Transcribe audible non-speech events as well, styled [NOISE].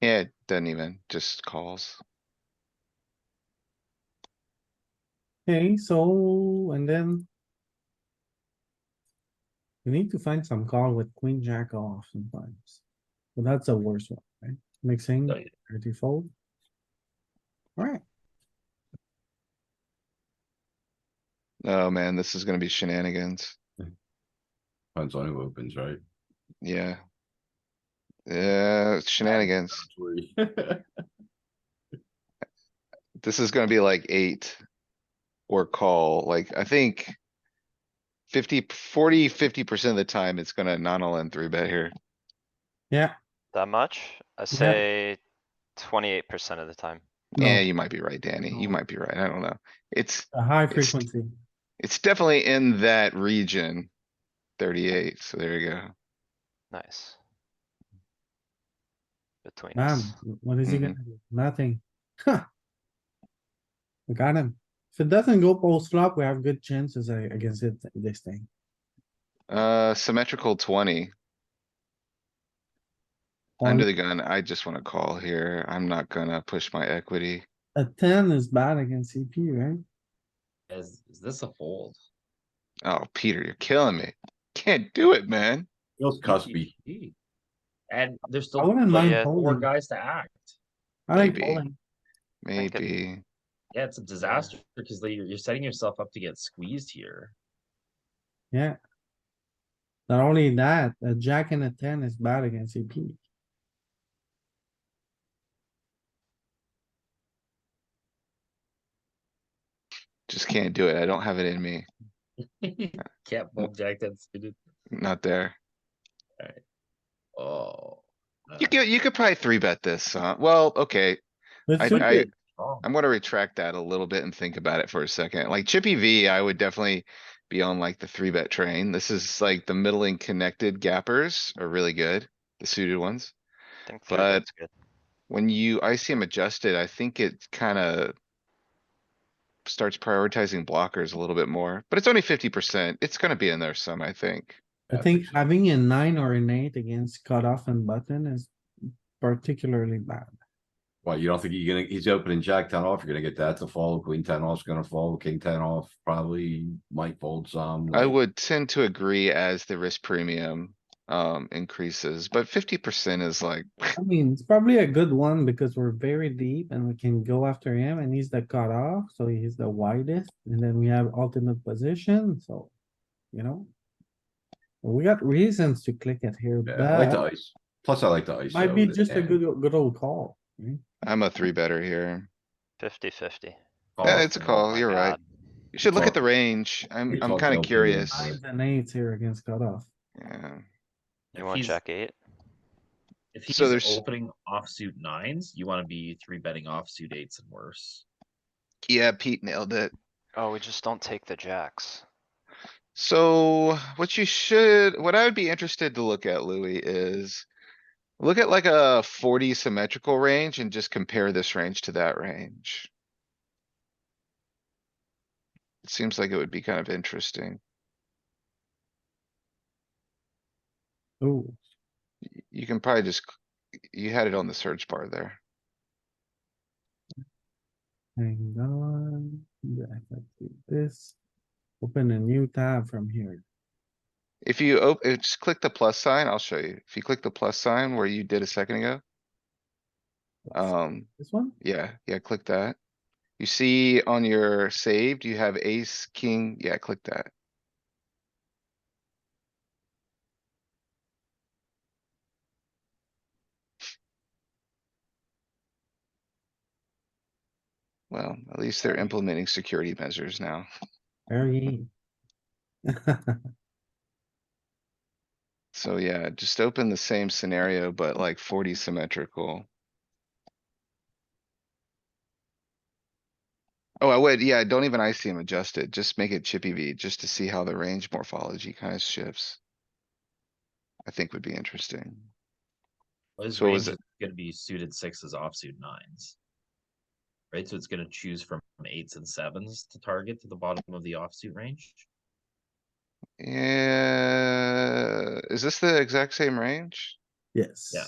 Yeah, it doesn't even, just calls. Okay, so, and then. We need to find some call with queen jack off sometimes. But that's the worst one, right? Mixing, Oh, yeah. thirty fold. Alright, Oh man, this is gonna be shenanigans. Depends on who opens, right? Yeah. Yeah, shenanigans. [LAUGHS] Three. This is gonna be like eight. Or call, like, I think. 50 40 50 percent of the time, it's gonna non-all-in three bet here. yeah. That much? I say twenty-eight percent of the time. no, Yeah, you might be right, Danny. You No. might be right. I don't know. It's, A high it's- frequency. it's definitely in that region. Thirty-eight, so there you go. Nice. Between Man, us. what is he gonna Mm-hmm. do? Nothing. Huh. We got him. If it doesn't go post flop, we have good chances uh, against it, this thing. Uh, symmetrical twenty. Under the gun, I just wanna call here. I'm not gonna push my equity. A ten is bad against CP, right? Is, is this a fold? Oh, Peter, you're killing me. Can't do it, man. Feels cuspy. GG. E And there's I still wouldn't mind yeah, four folding. guys to act. I like Maybe. folding. think it- Maybe. Yeah, it's a disaster because like, you're, you're setting yourself up to get squeezed here. Yeah. Not only that, a jack and a ten is bad against CP. Just can't do it. I don't have it in me. Can't fold jack ten suited. Not there. Oh. uh, You could, you could probably three bet this, huh? Well, okay, But I- suited, I- wrong. I'm gonna retract that a little bit and think about it for a second. Like Chippy V, I would definitely be on like the three bet train. This is like the middling connected gappers are really good, the suited ones. I think three but- bet's good. when you ICM adjusted, I think it kinda. Starts prioritizing blockers a little bit more, but it's only fifty percent. It's gonna be in there some, I think. I uh, think having a nine or an eight against cutoff and button is particularly bad. Well, you don't think you're gonna, he's opening jack ten off, you're gonna get that to fold, queen ten off's gonna fold, king ten off, probably um, might fold some. I like- would tend to agree as the risk premium um increases, but fifty percent is like, I mean, it's probably a good one because we're very deep and we can go after him and he's the cutoff, so he's the widest. And then we have ultimate position, so, you know. We got reasons to click it here, Yeah, I like the but ice. Plus, I like the ice. might though, be with it, just a yeah. good, good old call. right? I'm a three better here. Fifty-fifty. Call Yeah, off it's a the- call. You're right. You should look at Talk- the range. I'm, we I'm talked kinda LP. curious. Nines and eights here against cutoff. Yeah. You If want he's- jack eight? If So he's there's- opening offsuit nines, you wanna be three betting offsuit eights and worse. Yeah, Pete nailed it. Oh, we just don't take the jacks. So what you should, what I would be interested to look at, Louis, is look at like a forty symmetrical range and just compare this range to that range. It seems like it would be kind of interesting. Ooh, Y- You can probably just, c- you had it on the search bar there. hang on. Yeah, let's do this. Open a new tab from here. If you op, uh, just click the plus sign, I'll show you. If you click the plus sign where you did a second ago, um, This one? Yeah, yeah, click that. You see on your saved, you have ace, king, yeah, click that. Well, at least they're implementing security measures now. Very. E. So yeah, just open the same scenario, but like forty symmetrical. Oh, I would, yeah, don't even ICM adjust it, just make it chippy V, just to see how the range morphology kinda shifts. I think would be interesting. His So is range is gonna be suited sixes, offsuit nines. Right, so it's gonna choose from eights and sevens to target to the bottom of the offsuit range. Yeah, is this the exact same range? [LAUGHS] Yes. Yeah.